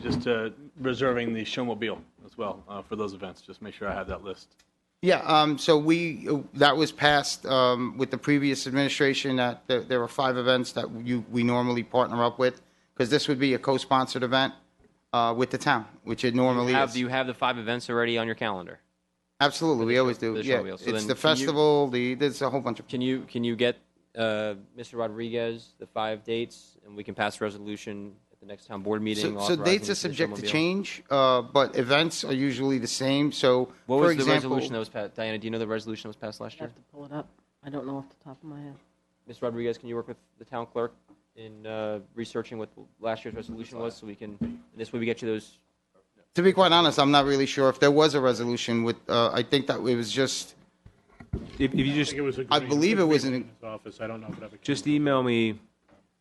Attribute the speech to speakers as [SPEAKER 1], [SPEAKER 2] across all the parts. [SPEAKER 1] just uh, reserving the showmobile as well uh, for those events. Just make sure I have that list.
[SPEAKER 2] Yeah, um, so we, that was passed, um, with the previous administration that there, there were five events that you, we normally partner up with, because this would be a co-sponsored event, uh, with the town, which it normally
[SPEAKER 3] Have, do you
[SPEAKER 2] is.
[SPEAKER 3] have the five events already on your calendar?
[SPEAKER 2] Absolutely, we always do,
[SPEAKER 3] the
[SPEAKER 2] yeah.
[SPEAKER 3] showmobile.
[SPEAKER 2] It's
[SPEAKER 3] So then
[SPEAKER 2] the
[SPEAKER 3] can you-
[SPEAKER 2] festival, the, there's a whole bunch of,
[SPEAKER 3] Can you can you get uh, Mr. Rodriguez the five dates, and we can pass a resolution at the next town board meeting?
[SPEAKER 2] so, so dates
[SPEAKER 3] authorizing
[SPEAKER 2] are subject to
[SPEAKER 3] the showmobile?
[SPEAKER 2] change, uh, but events are usually the same, so, for
[SPEAKER 3] What was the
[SPEAKER 2] example.
[SPEAKER 3] resolution that was passed? Diana, do you know the resolution that was passed last
[SPEAKER 4] I
[SPEAKER 3] year?
[SPEAKER 4] have to pull it up. I don't know off the top of my head.
[SPEAKER 3] Ms. Rodriguez, can you work with the town clerk in uh, researching what last year's resolution was, so we can this way we get you those
[SPEAKER 2] To be quite honest, I'm not really sure if there was a resolution with, uh, I think that it was just,
[SPEAKER 5] If, if you just,
[SPEAKER 6] think it was a
[SPEAKER 2] I
[SPEAKER 6] green-
[SPEAKER 2] believe it was
[SPEAKER 6] green
[SPEAKER 2] an-
[SPEAKER 6] in his office. I don't know if it ever came.
[SPEAKER 5] just email me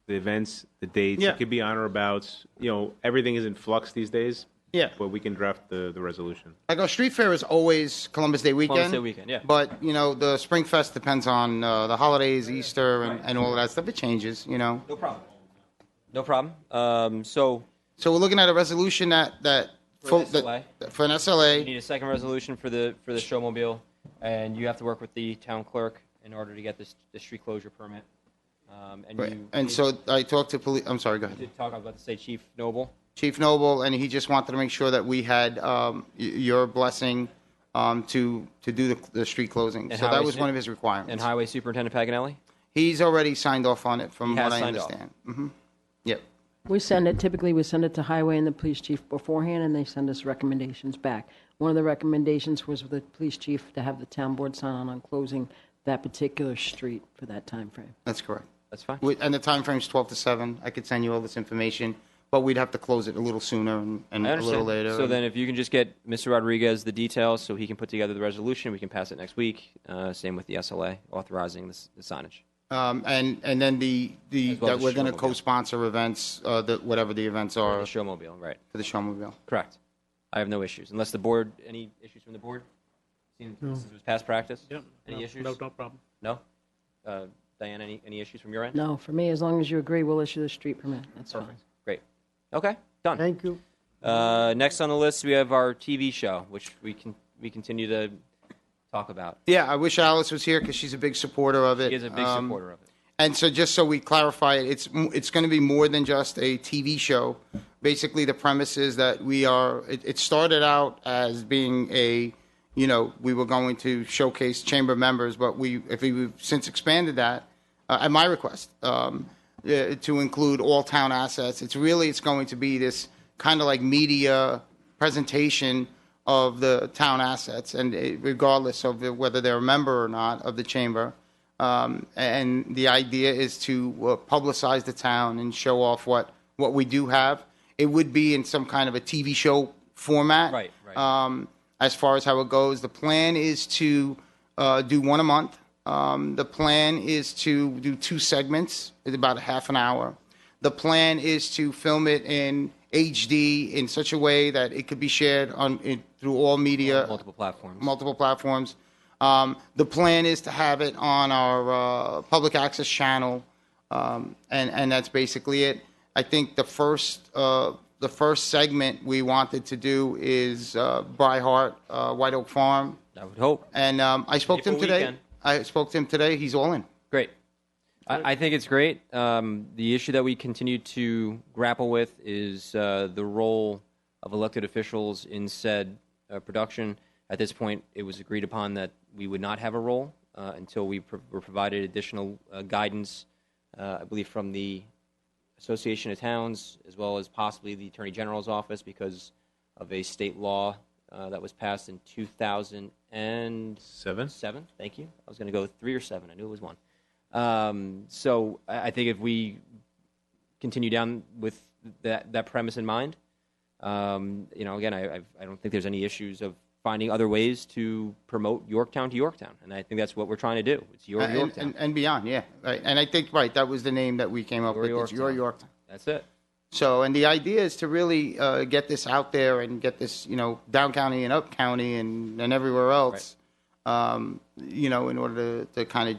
[SPEAKER 5] the events, the dates.
[SPEAKER 2] Yeah.
[SPEAKER 5] It could be on or about, you know, everything is in flux these days.
[SPEAKER 2] Yeah.
[SPEAKER 5] But we can draft the, the resolution.
[SPEAKER 2] Like our street fair is always Columbus Day weekend.
[SPEAKER 3] Day weekend, yeah.
[SPEAKER 2] But you know the Spring Fest depends on uh, the holidays, Easter, and, and all of that stuff. It changes, you know.
[SPEAKER 3] No problem. No problem. Um, so
[SPEAKER 2] So we're looking at a resolution that that
[SPEAKER 3] For an SLA.
[SPEAKER 2] that- for an
[SPEAKER 3] you
[SPEAKER 2] SLA.
[SPEAKER 3] need a second resolution for the for the showmobile, and you have to work with the town clerk in order to get this the street closure permit. Um, and
[SPEAKER 2] Right.
[SPEAKER 3] you
[SPEAKER 2] And so I talked to police. I'm sorry. Go
[SPEAKER 3] you
[SPEAKER 2] ahead,
[SPEAKER 3] did talk. I was about to say Chief Noble.
[SPEAKER 2] Chief Noble, and he just wanted to make sure that we had um, y- your blessing um, to to do the, the street closing.
[SPEAKER 3] And
[SPEAKER 2] so that
[SPEAKER 3] highway
[SPEAKER 2] was
[SPEAKER 3] su-
[SPEAKER 2] one of his requirements.
[SPEAKER 3] And Highway Superintendent Paganelli?
[SPEAKER 2] He's already signed off on it, from
[SPEAKER 3] He has
[SPEAKER 2] what I
[SPEAKER 3] signed off.
[SPEAKER 2] understand. Mm-hmm. Yep.
[SPEAKER 4] We send it, typically we send it to highway and the police chief beforehand and they send us recommendations back. One of the recommendations was with the police chief to have the town board sign on on closing that particular street for that time frame.
[SPEAKER 2] That's correct.
[SPEAKER 3] That's fine.
[SPEAKER 2] With- And the time frame's 12 to 7. I could send you all this information, but we'd have to close it a little sooner and and
[SPEAKER 3] I
[SPEAKER 2] a little
[SPEAKER 3] understand.
[SPEAKER 2] later.
[SPEAKER 3] So then, if you can just get Mr. Rodriguez the details, so he can put together the resolution, we can pass it next week. Uh, same with the SLA authorizing this, the signage.
[SPEAKER 2] Um, And, and then the, the,
[SPEAKER 3] As well
[SPEAKER 2] that
[SPEAKER 3] as
[SPEAKER 2] we're going to
[SPEAKER 3] Showmobile.
[SPEAKER 2] co-sponsor events, uh, the- whatever the events
[SPEAKER 3] Or
[SPEAKER 2] are
[SPEAKER 3] the showmobile, right?
[SPEAKER 2] for the Showmobile.
[SPEAKER 3] Correct. I have no issues, unless the board any issues from the board. Seems this was past practice.
[SPEAKER 6] Yep.
[SPEAKER 3] Any
[SPEAKER 6] No-
[SPEAKER 3] issues?
[SPEAKER 6] No, no problem.
[SPEAKER 3] No. Uh, Diane, any any issues from your end?
[SPEAKER 4] No, for me, as long as you agree, we'll issue the street permit. That's fine.
[SPEAKER 3] Great. Okay. Done.
[SPEAKER 4] Thank you.
[SPEAKER 3] Uh, next on the list, we have our TV show, which we can we continue to talk about.
[SPEAKER 2] Yeah, I wish Alice was here because she's a big supporter of it.
[SPEAKER 3] He is a big
[SPEAKER 2] Um,
[SPEAKER 3] supporter of it.
[SPEAKER 2] And so, just so we clarify, it, it's m- it's going to be more than just a TV show. Basically, the premise is that we are. It, it started out as being a, you know, we were going to showcase chamber members, but we if we, we've since expanded that uh, at my request um, uh, to include all town assets. It's really it's going to be this kind of like media presentation of the town assets, and it, regardless of whether they're a member or not of the chamber. Um, and the idea is to uh, publicize the town and show off what, what we do have. It would be in some kind of a TV show format.
[SPEAKER 3] Right, right.
[SPEAKER 2] Um, as far as how it goes, the plan is to uh, do one a month. Um, the plan is to do two segments, it's about a half an hour. The plan is to film it in HD in such a way that it could be shared on in, through all media
[SPEAKER 3] Multiple platforms.
[SPEAKER 2] multiple platforms. Um, the plan is to have it on our uh, public access channel, um, and and that's basically it. I think the first uh, the first segment we wanted to do is uh, Brighart uh, White Oak Farm,
[SPEAKER 3] I would hope.
[SPEAKER 2] and um, I spoke to him
[SPEAKER 3] Maple
[SPEAKER 2] today.
[SPEAKER 3] weekend.
[SPEAKER 2] I spoke to him today. He's all in.
[SPEAKER 3] Great. I, I think it's great. Um, the issue that we continue to grapple with is uh, the role of elected officials in said uh, production. At this point, it was agreed upon that we would not have a role uh, until we pro- were provided additional uh, guidance, uh, I believe, from the Association of Towns, as well as possibly the Attorney General's office, because of a state law uh, that was passed in 2007.
[SPEAKER 5] Seven?
[SPEAKER 3] Seven. Thank you. I was going to go with three or seven. I knew it was one. Um, so I, I think if we continue down with that that premise in mind, um, you know, again, I I've, I don't think there's any issues of finding other ways to promote Yorktown to Yorktown, and I think that's what we're trying to do. It's your
[SPEAKER 2] Uh, And,
[SPEAKER 3] Yorktown.
[SPEAKER 2] and, and beyond, yeah. Right. And I think, right, that was the name that we came up
[SPEAKER 3] Your
[SPEAKER 2] with. It's your
[SPEAKER 3] Yorktown.
[SPEAKER 2] Yorktown.
[SPEAKER 3] that's it.
[SPEAKER 2] So, and the idea is to really uh, get this out there and get this, you know, down county and up county and, and everywhere else, um, you know, in order to, to kind of,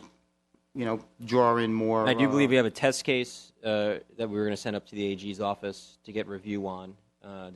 [SPEAKER 2] you know, draw in more.
[SPEAKER 3] I do
[SPEAKER 2] uh,
[SPEAKER 3] believe we have a test case uh, that we were going to send up to the AG's office to get review on. Uh,